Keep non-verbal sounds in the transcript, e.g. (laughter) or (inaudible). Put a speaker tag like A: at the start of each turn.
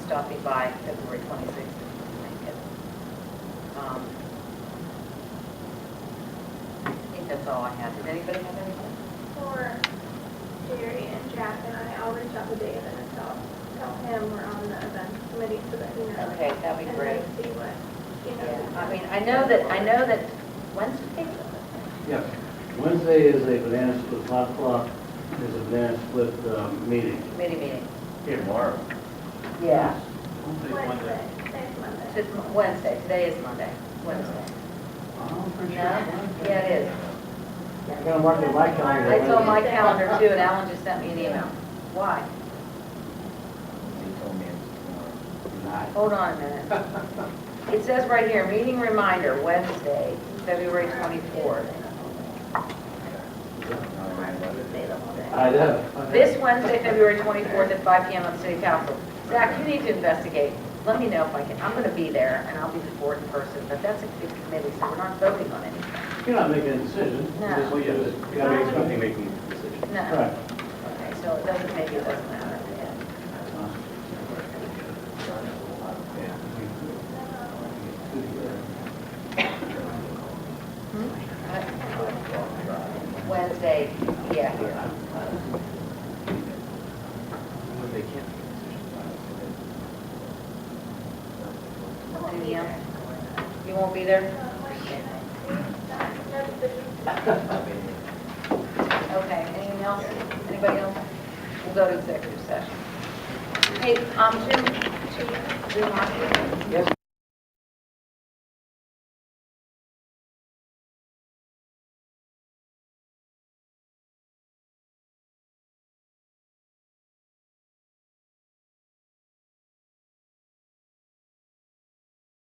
A: stopping by February 26th if you make it. Um, I think that's all I have. Does anybody have anything?
B: For Jerry and Jack and I, I'll reach out to Dave and tell, tell him we're on the event committee so that he knows.
A: Okay, that'd be
B: And
A: great.
B: then see what he knows.
A: Yeah, I mean, I know that, I know that Wednesday,
C: Yes, Wednesday is a banana split, five o'clock is a banana split um, meeting.
A: committee meeting.
D: Here tomorrow.
A: Yeah.
B: Wednesday, next Monday.
A: It's Wednesday, today is Monday, Wednesday.
C: I'm
A: No?
C: pretty sure.
A: Yeah, it is.
C: I gotta mark it in my calendar.
A: I told my calendar too, and Alan just sent me an email. Why?
D: He told me it
C: Tonight.
A: Hold on a minute. (laughs) It says right here, meeting reminder, Wednesday, February 24th.
D: was tomorrow. I don't know what it is.
C: I know.
A: This Wednesday, February 24th at 5 PM on City Council. Zach, you need to investigate. Let me know if I can, I'm going to be there, and I'll be the board in person, but that's a good committee, so we're not voting on anything.
C: You're not making a decision.
A: No.
C: Just-
E: Well, yeah,
C: just-
E: there's gotta be something making the decision.
A: No,
C: Right.
A: okay, so it doesn't, maybe it doesn't matter. Uh, Wednesday, yeah, here.
D: They can't make a decision.
B: I won't be
A: Yeah.
B: there.
A: You won't be there?
B: Uh, Wednesday night. No decision.
A: Okay, anything else? Anybody else? We'll go to executive session. Hey, um, Jim, Jim, Jim, Markey?
C: Yes,